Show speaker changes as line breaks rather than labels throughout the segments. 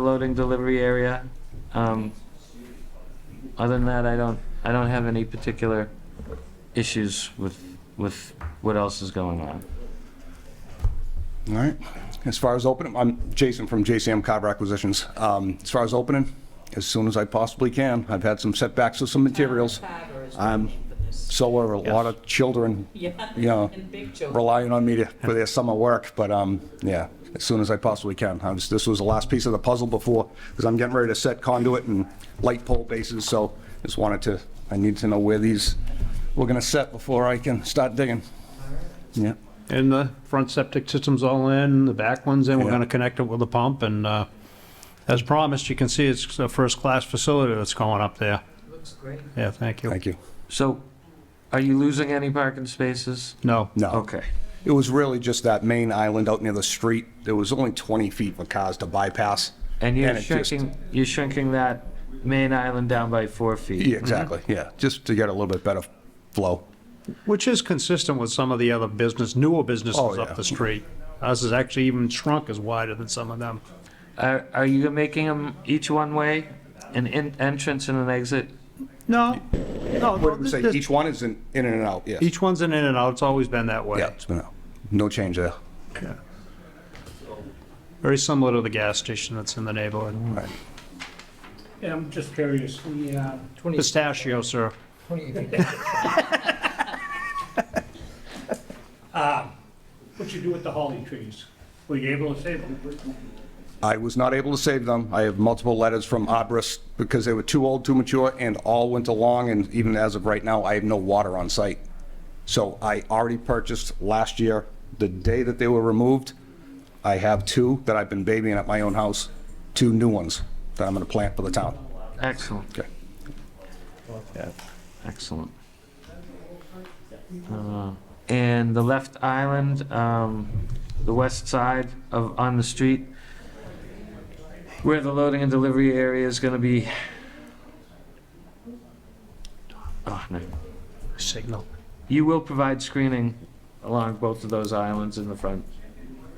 loading delivery area. Um, Other than that, I don't, I don't have any particular issues with, with what else is going on.
All right. As far as opening, I'm Jason from JCM Carver Acquisitions. Um, As far as opening, as soon as I possibly can. I've had some setbacks with some materials. I'm, so are a lot of children, you
Yeah.
know,
And big children.
relying on me to, for their summer work, but, um, yeah, as soon as I possibly can. I was, this was the last piece of the puzzle before, because I'm getting ready to set conduit and light pole bases, so just wanted to, I need to know where these, we're gonna set before I can start digging. Yeah.
And the front septic system's all in, the back one's in, we're
Yeah.
gonna connect it with a pump, and, uh, as promised, you can see it's a first-class facility that's going up there.
Looks great.
Yeah, thank you.
Thank you.
So, are you losing any parking spaces?
No,
No.
Okay.
It was really just that main island out near the street. There was only 20 feet for cars to bypass.
And you're
it just-
shrinking, you're shrinking that main island down by four feet?
Yeah, exactly,
Mm-hmm.
yeah, just to get a little bit better flow.
which is consistent with some of the other business, newer
Oh,
businesses
yeah.
up the street. Ours is actually even shrunk as wider than some of them.
Are, are you making them each one-way, an en- entrance and an exit?
No, no,
What did we say,
this-
each one is in in and out, yes.
each one's an in and out, it's always been that
Yeah,
way.
it's been out. no change there.
Very similar to the gas station that's in the neighborhood.
Right.
Yeah, I'm just curious, the, uh,
Pistachio, sir.
what you do with the holly trees? Were you able to save them?
I was not able to save them. I have multiple letters from arborists because they were too old, too mature, and all went along, and even as of right now, I have no water on site. So I already purchased last year, the day that they were removed, I have two that I've been babying at my own house, two new ones that I'm gonna plant for the town.
Excellent.
Okay.
Excellent. Uh, And the left island, um, the west side of, on the street, where the loading and delivery area is gonna be. Oh, no.
Signal.
You will provide screening along both of those islands in the front.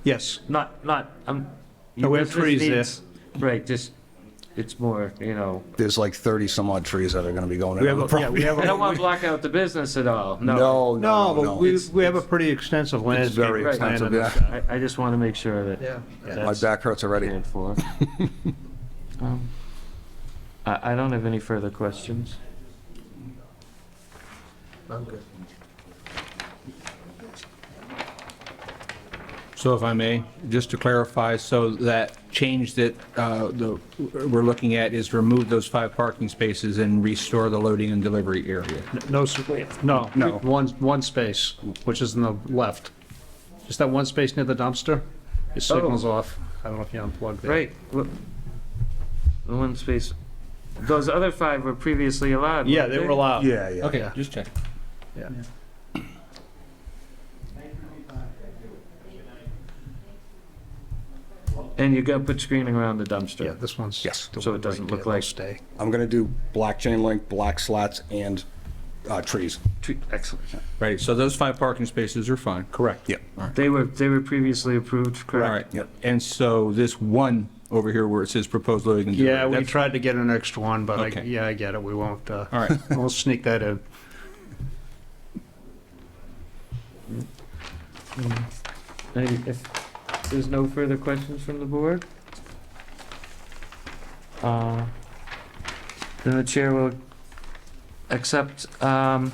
Yes,
Not, not, um.
No, we have
your
trees there.
business needs- Right, just, it's more, you know,
There's like 30 some odd trees that are gonna be going
we
in.
have,
on the
a- yeah,
property.
we have.
I
a-
don't wanna block out the business at all, no.
No,
No,
no,
but
no.
we,
It's-
we have a pretty extensive landscape.
very
plan in
extensive,
this.
yeah.
I, I just wanna make sure that. Yeah.
My back hurts already.
prepared for. Um, I, I don't have any further questions.
So if I may, just to clarify, so that change that uh, the- we're looking at is remove those five parking spaces and restore the loading and delivery area.
No, sir. no.
No.
One, one space, which is in the left. Just that one space near the dumpster. Your signal's off. I don't know if you unplugged it.
Oh. Right. look, The one space, those other five were previously allowed.
Yeah,
weren't
they were allowed.
Yeah, yeah.
Okay, just check.
Yeah.
And you're gonna put screening around the
Yeah,
dumpster.
this one's.
Yes.
the
So it
one
doesn't
right
look
there. They'll
like-
Stay.
I'm gonna do black chain link, black slats, and uh, trees.
Tre- Excellent.
Right, so those five parking spaces are fine.
Correct.
Yep.
They were, they were previously approved,
All
correct?
right,
Yep.
and so this one over here where it says proposed loading and delivery.
Yeah, we
that's-
tried to get an extra one, but I,
Okay.
yeah, I get it. We won't, uh,
All right,
we'll sneak that in.
And if there's no further questions from the board? uh, Then the chair will accept um,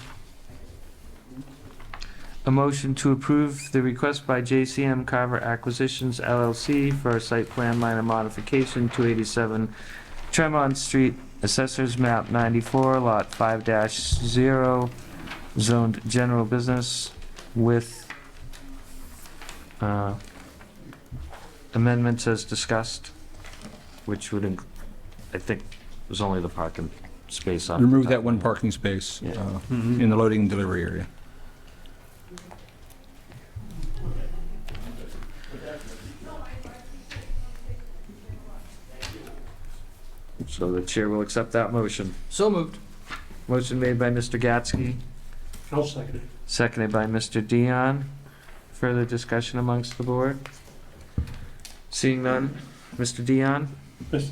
a motion to approve the request by JCM Carver Acquisitions LLC for a site plan minor modification, 287 Tremont Street, Assessors Map 94, Lot 5-0, zoned general business with uh, amendments as discussed, which would, inc- I think, was only the parking space on.
remove that one parking space
Yeah.
uh, in the loading and delivery area.
So the chair will accept that motion.
So moved.
Motion made by Mr. Gatsky,
I'll second it.
seconded by Mr. Dion. Further discussion amongst the board? Seeing none. Mr. Dion?
Mr.